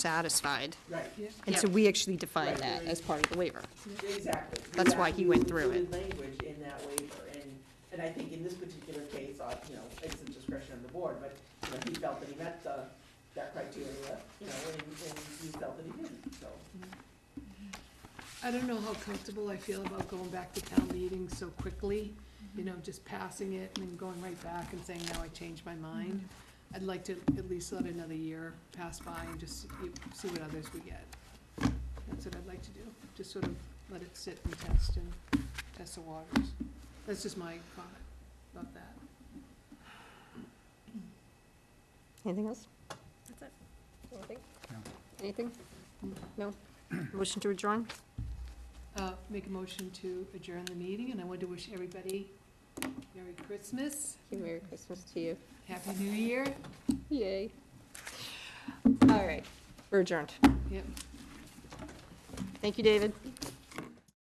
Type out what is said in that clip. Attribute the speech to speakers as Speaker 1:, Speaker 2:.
Speaker 1: satisfied.
Speaker 2: Right,
Speaker 1: And so we actually define that as part of the waiver.
Speaker 2: exactly.
Speaker 1: That's why he went through it.
Speaker 2: Exactly. Language in that waiver, and, and I think in this particular case, uh, you know, it's the discretion of the board, but, you know, he felt that he met the, that criteria, you know, and, and he felt that he didn't, so.
Speaker 3: I don't know how comfortable I feel about going back to town meeting so quickly, you know, just passing it and then going right back and saying, now I changed my mind. I'd like to at least let another year pass by and just you- see what others we get. That's what I'd like to do, just sort of let it sit and test and test the waters. That's just my comment about that.
Speaker 1: Anything else?
Speaker 4: That's it.
Speaker 1: Anything? Anything? No? Motion to adjourn?
Speaker 3: Uh, make a motion to adjourn the meeting, and I want to wish everybody Merry Christmas,
Speaker 1: Merry Christmas to you.
Speaker 3: Happy New Year.
Speaker 1: Yay. All right, we're adjourned.
Speaker 3: Yep.
Speaker 1: Thank you, David.